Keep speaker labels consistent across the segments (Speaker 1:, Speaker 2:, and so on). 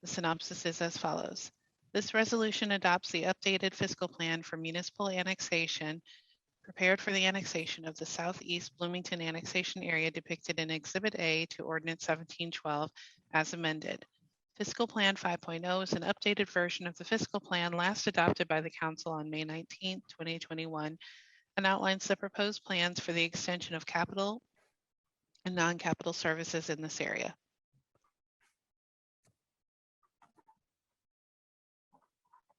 Speaker 1: The synopsis is as follows. This resolution adopts the updated fiscal plan for municipal annexation prepared for the annexation of the southeast Bloomington annexation area depicted in Exhibit A to Ordinance 1712 as amended. Fiscal Plan 5.0 is an updated version of the fiscal plan last adopted by the council on May 19, 2021, and outlines the proposed plans for the extension of capital and non-capital services in this area.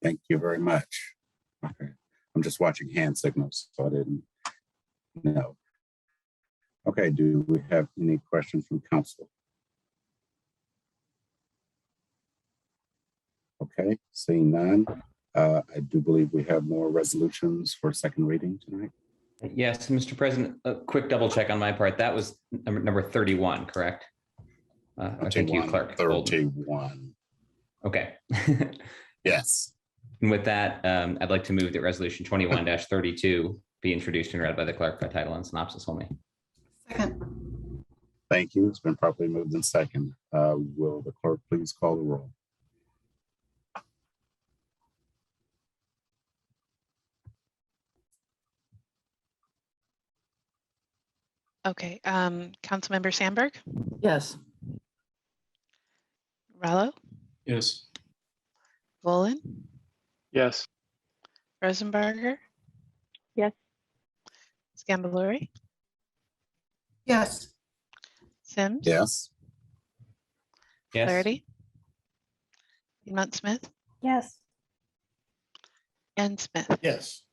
Speaker 2: Thank you very much. Okay, I'm just watching hand signals, so I didn't know. Okay, do we have any questions from council? Okay, seeing none, uh, I do believe we have more resolutions for second reading tonight.
Speaker 3: Yes, Mr. President, a quick double check on my part. That was number number 31, correct? Uh, Thank you, Clerk. Bolden.
Speaker 2: Thirty-one,
Speaker 3: Okay. And
Speaker 2: yes.
Speaker 3: with that, um, I'd like to move that Resolution 21-32 be introduced and read by the clerk by title and synopsis only.
Speaker 4: Second,
Speaker 2: Thank you. It's been properly moved in second. Uh, Will the clerk please call the roll?
Speaker 1: Okay, um, Councilmember Sandberg,
Speaker 4: yes.
Speaker 1: Rallo,
Speaker 5: Yes.
Speaker 1: Volin,
Speaker 5: Yes.
Speaker 1: Rosenberger.
Speaker 6: Yes.
Speaker 1: Scambalori,
Speaker 4: Yes.
Speaker 1: Sims.
Speaker 2: Yes,
Speaker 3: Yes.
Speaker 1: Flaherty. Piedmont Smith
Speaker 6: Yes.
Speaker 1: and Smith.
Speaker 5: Yes.